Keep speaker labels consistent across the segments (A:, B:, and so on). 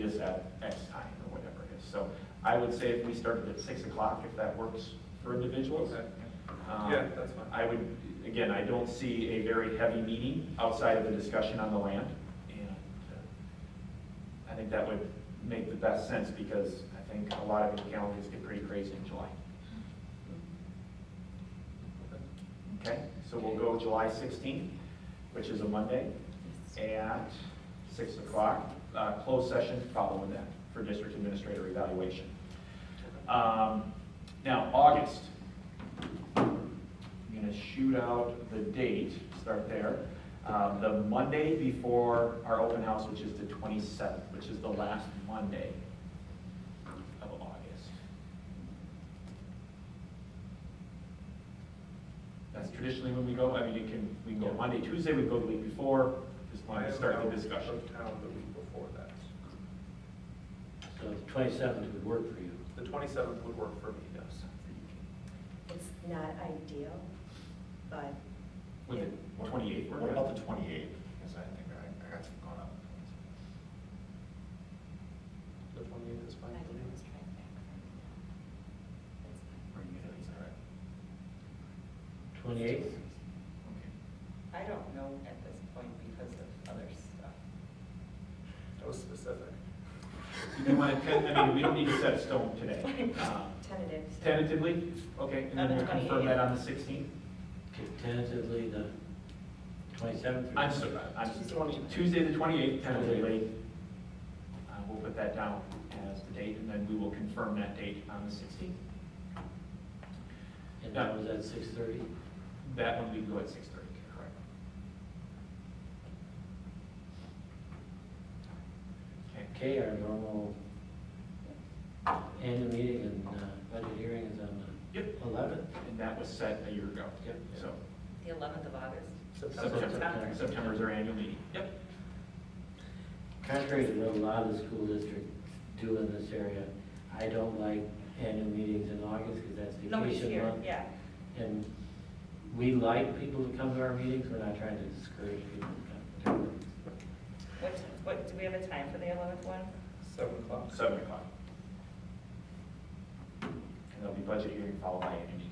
A: is at X time or whatever it is. So I would say if we started at six o'clock, if that works for individuals.
B: Okay.
A: um,
B: Yeah, that's fine.
A: I would, again, I don't see a very heavy meeting outside of the discussion on the land. And uh, I think that would make the best sense because I think a lot of the calendars get pretty crazy in July. Okay, so we'll go July 16th, which is a Monday, at 6 o'clock. Uh, Closed session following that for district administrator evaluation. Um, Now, August, I'm going to shoot out the date, start there. Um, The Monday before our open house, which is the 27th, which is the last Monday of August. That's traditionally when we go, I mean, you can, we can go Monday, Tuesday, we go the week before, just wanted to start the discussion.
B: Of town the week before that.
C: So the twenty-seventh would work for you.
B: The twenty-seventh would work for me, yes.
D: It's not ideal, but
A: With the 28th, we're
E: What
A: gonna-
E: about the twenty-eighth? Because I think I, I got some going up.
B: The twenty-eighth is fine for me.
E: Or you guys, all right?
C: Twenty-eighth?
F: I don't know at this point because of other stuff.
B: That was specific.
A: You do want to, I mean, we don't need to set a stone today. Um,
D: tentative. so-
A: Tentatively, okay, and then
F: On the
A: we'll confirm that
F: 28th.
A: on the 16th?
C: Tentatively the twenty-seventh?
A: I'm sorry, I'm, Tuesday the 28th, tentatively. Uh, We'll put that down as the date, and then we will confirm that date on the 16th.
C: And that was at six-thirty?
A: That one we can go at 6:30, correct? Okay,
C: Okay, our normal annual meeting and uh, budget hearing is on
A: yep,
C: the eleventh.
A: and that was set a year ago.
C: Yep.
A: So
F: The eleventh of August.
A: September, September's our annual meeting. Yep,
C: Contrary to what a lot of the school districts do in this area, I don't like annual meetings in August because that's
F: Nobody's
C: vacation
F: here,
C: month.
F: yeah.
C: And we like people to come to our meetings, we're not trying to discourage people from coming.
F: What, what, do we have a time for the eleventh one?
B: Seven o'clock.
A: 7 o'clock. And there'll be budget hearing followed by annual meeting.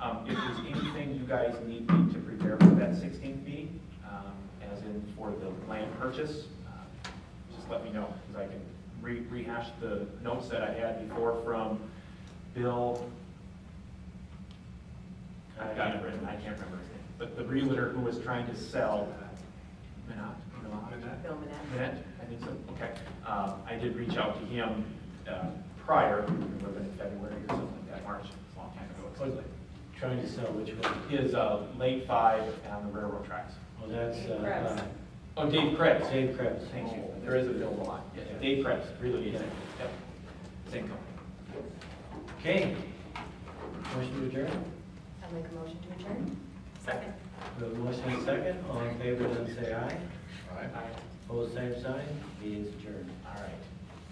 A: Um, If there's anything you guys need me to prepare for that 16th meeting, um, as in for the land purchase, uh, just let me know, because I can re- rehash the notes that I had before from Bill. I've got it written, I can't remember his name, but the realtor who was trying to sell uh, Minot, Minot?
D: Bill Manette.
A: That, I think so, okay. Um, I did reach out to him uh, prior, it would have been in February or something like that, March, it's a long time ago. it seems like.
C: Trying to sell which one?
A: His uh, late five on the railroad tracks.
C: Well, that's,
F: Krebs.
C: uh,
A: Oh, Dave Krebs.
C: uh, Dave Krebs.
A: Thank you. There is a bill a lot. Yes, Dave Krebs, really easy. Yep. Same company.
C: Okay. Motion to adjourn?
D: I'll make a motion to adjourn.
F: Second.
C: We have a motion and a second, all in favor, then say aye.
E: All right.
C: Opposed, same sign, meeting's adjourned.
A: All right.